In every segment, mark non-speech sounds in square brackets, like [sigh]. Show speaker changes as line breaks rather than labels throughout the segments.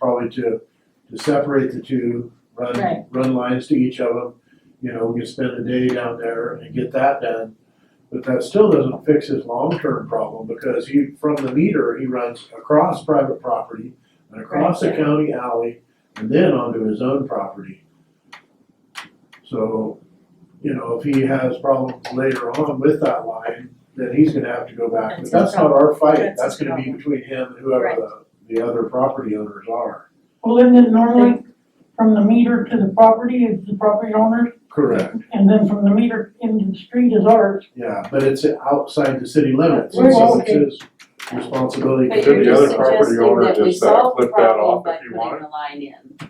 probably to, to separate the two,
Right.
run, run lines to each of them. You know, we could spend a day down there and get that done, but that still doesn't fix his long-term problem, because he, from the meter, he runs across private property and across the
Right.
county alley, and then onto his own property. So, you know, if he has problems later on with that line, then he's gonna have to go back, but
That's
that's
his
not our fight,
That's
that's
his
gonna be
problem.
between him and whoever the, the other property owners are.
Well, isn't it normally from the meter to the property is the property owner's,
Correct.
and then from the meter into the street is ours?
Yeah, but it's outside the city limits,
We're
and so
just-
it's his responsibility
But
to
you're
figure
just
it out.
suggesting
property owner
that we
just, uh,
solve the
flip that
problem
off
by
if you want
putting the line in.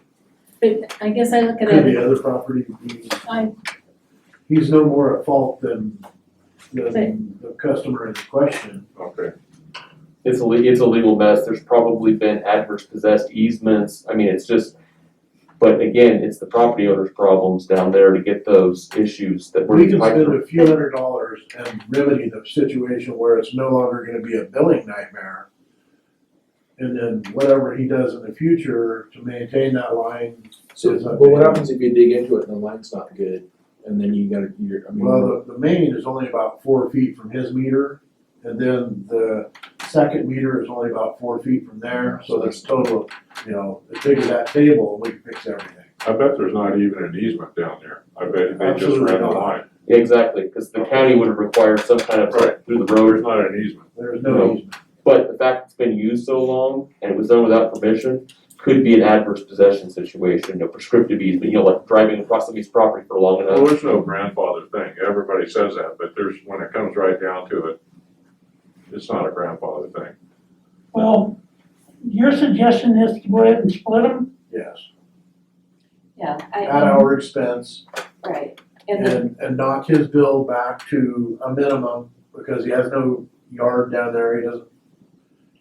But I guess I look at
Could
it,
the other property be,
I,
he's no more at fault than, than
But-
the customer in question.
Okay,
It's a, le- it's a legal mess, there's probably been adverse possessed easements, I mean, it's just, but again, it's the property owner's problems down there to get those issues
We
that we're
can
fighting
spend
through.
a few hundred dollars and remedy the situation where it's no longer gonna be a billing nightmare. And then whatever he does in the future to maintain that line
So,
It's
but
up to
what
you.
happens if you dig into it and the line's not good, and then you gotta, you're, I mean.
Well, the, the main is only about four feet from his meter, and then the second meter is only about four feet from there, so that's total, you know, as big as that table, we can fix everything.
I bet there's not even an easement down there, I bet they just
Absolutely
ran the
not.
line,
Yeah, Exactly, cause the county would have required some kind of
Right.
through the
there's
road,
not an easement.
There's no easement.
but the fact it's been used so long and it was done without permission could be an adverse possession situation, a prescriptive easement, you know, like driving across somebody's property for long
Well,
enough.
there's no grandfather thing, everybody says that, but there's, when it comes right down to it, it's not a grandfather thing.
Well, your suggestion is to go ahead and split them?
Yes,
Yeah,
at
I,
our expense,
right, and then,
and, and knock his bill back to a minimum, because he has no yard down there, he doesn't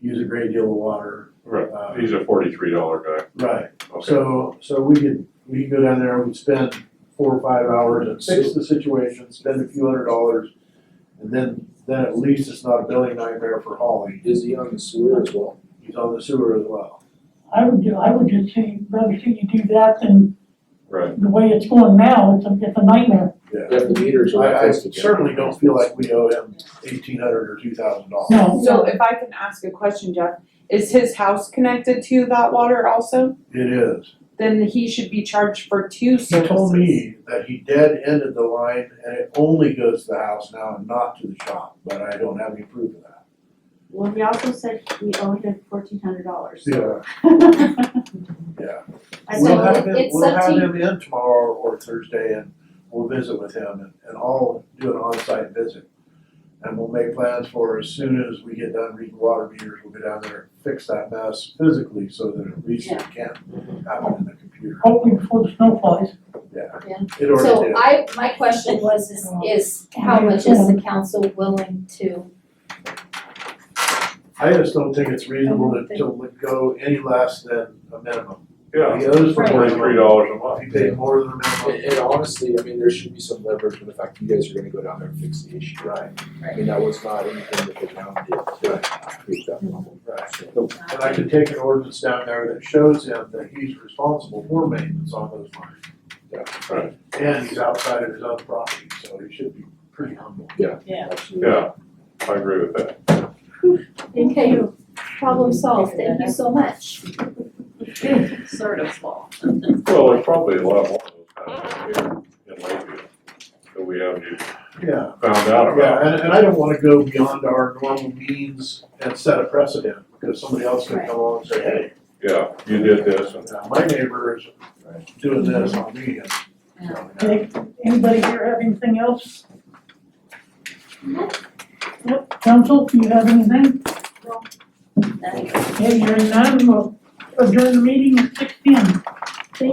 use a great deal of water.
Right.
Uh,
He's a forty-three dollar guy,
Right,
okay,
So, so we could, we could go down there, we'd spend four or five hours and fix the situation, spend a few hundred dollars. And then, then at least it's not a billing nightmare for Holly,
Is he on the sewer as well?
he's on the sewer as well.
I would, do- I would just see, rather see you do that than
right,
the way it's going now, it's a, it's a nightmare.
Yeah,
If the meters are not
I, I
close together.
certainly don't feel like we owe him eighteen hundred or two thousand dollars.
No,
So if I can ask a question, Jeff, is his house connected to that water also?
It is,
Then he should be charged for two
he
services.
told me that he dead ended the line and it only goes to the house now and not to the shop, but I don't have any proof of that.
well, we also said we owed him fourteen hundred dollars.
Yeah.
[laughs] I
We'll
said,
have him,
it's
we'll
up
have
to,
him in tomorrow or Thursday and we'll visit with him and, and I'll do an on-site visit. And we'll make plans for as soon as we get done reading water meters, we'll go down there and fix that mess physically so that at least it can happen in the computer.
hopefully before the snow flies.
It already
so
did.
I, my question was, is, is how much is the council willing to,
I just don't think it's reasonable to, to let go any less than a minimum.
yeah,
He owes for
Right.
forty-three
minimum,
dollars a
if
month.
he paid more than a
And,
minimum,
and honestly, I mean, there should be some leverage for the fact that you guys are gonna go down there and fix the issue.
right,
I mean, that was not anything that the town did to create that problem.
right.
So,
And I could take an ordinance down there that shows him that he's responsible for maintenance on those lines.
yeah,
And he's outside of his own property, so he should be pretty humble.
absolutely.
Yeah, I agree with that.
okay, problem solved, thank you so much.
sort of small.
Well, there's probably a lot more of those kind of here in Lakeview that we haven't even
Yeah,
found out
yeah,
about.
and, and I don't wanna go beyond our normal means and set a precedent, because somebody else could come along and say, hey,
Yeah, you did this, and
now my neighbor is doing this on me. and-
Okay, Anybody here have anything else? Yep, council, do you have anything?
Nice.
Okay, hearing none, we'll adjourn the meeting at six P M.